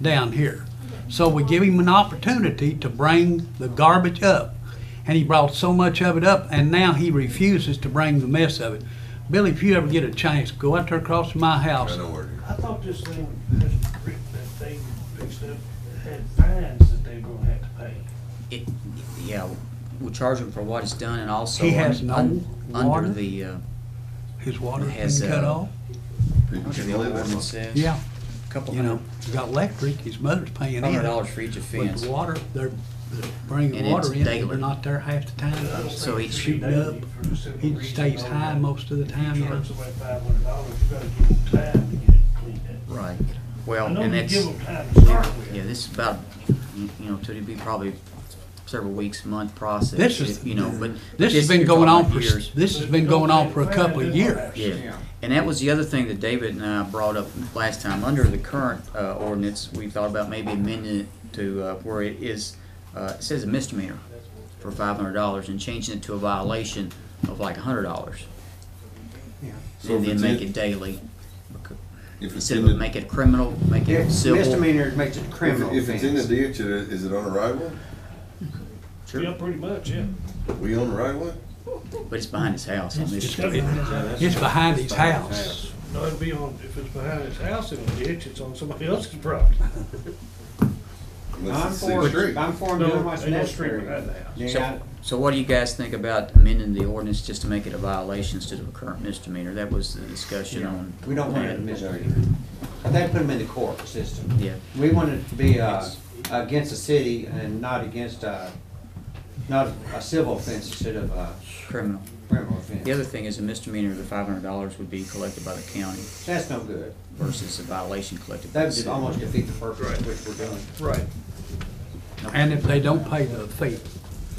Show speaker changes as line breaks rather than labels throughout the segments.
down here. So we give him an opportunity to bring the garbage up. And he brought so much of it up, and now he refuses to bring the mess of it. Billy, if you ever get a chance, go out there across my house.
I know where it is.
I thought this thing, this creek that they fixed up, had fines that they were gonna have to pay.
It, yeah, we'll charge him for what he's done and also.
He has
un-
no
un-
water?
Under the, uh,
His water's
Has,
been cut
uh,
off.
what
Can
the
you live in
ordinance
it?
says?
Yeah,
Couple
you know,
hundred,
he's got electric, his mother's paying
hundred
in.
dollars for each
But
offense.
the water, they're they're bringing
And
the water
it's
in,
daily.
they're not there half the time.
So
it's
it's-
Shooting up, he stays high most of the time.
You charge somebody five hundred dollars, you gotta give them time to get it cleaned up.
Right,
I
well,
know
and
you
that's,
give them time to start
yeah,
with,
this is about, you you know, to be probably several weeks, month process.
This is-
You know, but. but
This has been
you're
going
talking
on for,
about years.
this has been going on for a couple of years.
Yeah, and that was the other thing that David and I brought up last time. Under the current uh, ordinance, we thought about maybe amending it to uh, where it is, uh, it says a misdemeanor for five hundred dollars and changing it to a violation of like a hundred dollars.
So if
And then
it's
make
in-
it daily.
if it's
Instead
in
of
the, if
make it criminal, make
Yeah,
it civil.
Misdemeanor makes it criminal
if it's in the
offense.
ditch, it- is it on a right one?
Sure.
yeah, pretty much, yeah.
We on the right one?
But it's behind his house on this
It's
street.
it's behind his house.
No, it'd be on, if it's behind his house in a ditch, it's on somebody else's property.
Unless
I'm
it's city street.
for, I'm for
No,
doing what's
ain't no street behind
necessary.
the house.
Yeah,
So, so what do you guys think about amending the ordinance just to make it a violation instead of a current misdemeanor? That was the discussion on.
we don't want it in Missouri. They put them in the court system.
Yeah.
We want it to be, uh, against the city and not against, uh, not a civil offense instead of a
Criminal.
criminal
The
offense.
other thing is a misdemeanor, the five hundred dollars would be collected by the county
That's no good.
versus a violation collected by the
That would
city.
almost defeat the purpose of which we're doing.
Right.
And if they don't pay the fee,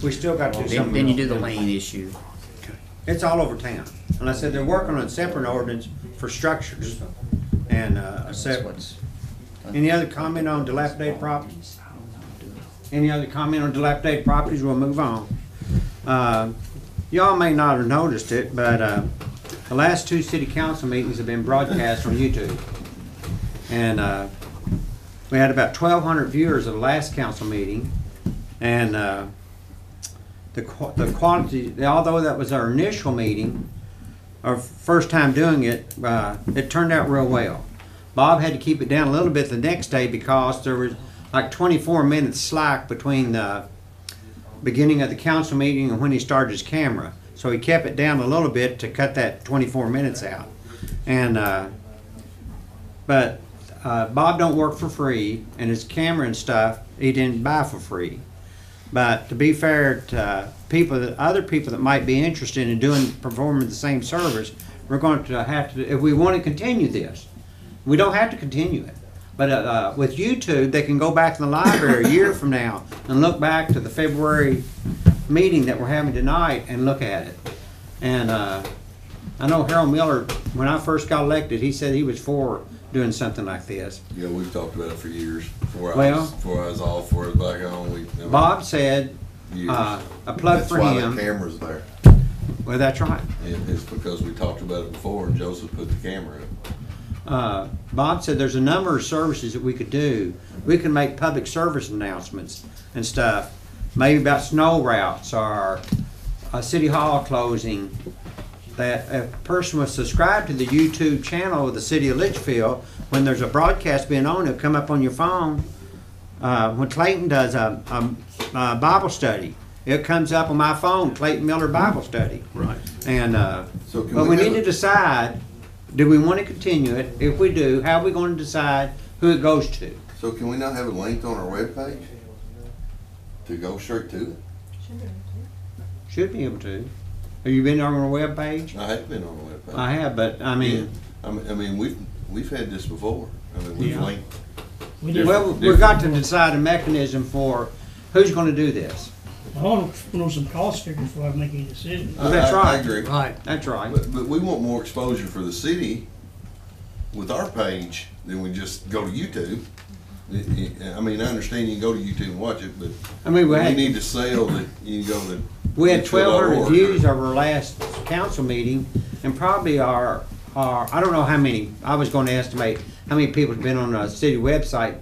We still got to do
Then,
something.
then you do
else.
the lien issue.
It's all over town. And I said, they're working on a separate ordinance for structures and, uh, a
That's
separate.
what's-
Any other comment on dilapidated properties? Any other comment on dilapidated properties? We'll move on. Uh, Y'all may not have noticed it, but uh, the last two city council meetings have been broadcast on YouTube. And uh, we had about 1,200 viewers of the last council meeting. And uh, the qu- the quantity, although that was our initial meeting, our first time doing it, uh, it turned out real well. Bob had to keep it down a little bit the next day because there was like 24 minutes slack between the beginning of the council meeting and when he started his camera. So he kept it down a little bit to cut that 24 minutes out. And, uh, but uh, Bob don't work for free and his camera and stuff, he didn't buy for free. But to be fair to uh, people, that other people that might be interested in doing, performing the same service, we're going to have to, if we want to continue this, we don't have to continue it. But uh, uh, with YouTube, they can go back to the library a year from now and look back to the February meeting that we're having tonight and look at it. And uh, I know Harold Miller, when I first got elected, he said he was for doing something like this.
Yeah, we've talked about it for years, before I
Well-
was, before I was all for it back on, we. I mean,
Bob said,
years.
uh, a plug for
That's why the
him.
camera's there.
Well, that's right.
It, it's because we talked about it before and Joseph put the camera up.
uh, Bob said there's a number of services that we could do. We can make public service announcements and stuff, maybe about snow routes or a city hall closing. That a person was subscribed to the YouTube channel of the city of Litchfield, when there's a broadcast being on, it'll come up on your phone. Uh, when Clayton does a, a, a Bible study, it comes up on my phone, Clayton Miller Bible Study.
Right.
And, uh,
So can
but
we
we
have
need
a-
to decide, do we want to continue it? If we do, how are we going to decide who it goes to?
So can we not have a link on our webpage? To go straight to it?
Should be able to. Have you been on our webpage?
I have been on the webpage.
I have, but I
Yeah.
mean,
I mean, I mean, we've, we've had this before. I mean, we've
Yeah.
linked.
We
Yeah.
just,
well, we've got to decide a mechanism for who's going to do this.
I want to know some cost figures before I make any decision.
Well, that's
I- I- I
right.
agree.
right,
That's right.
But, but we want more exposure for the city with our page than we just go to YouTube. I- I I mean, I understand you can go to YouTube and watch it, but
I mean, we
we
had,
need to sell that you can go to.
we had twelve hundred
litchfield.org.
views of our last council meeting and probably our, our, I don't know how many, I was going to estimate how many people have been on the city website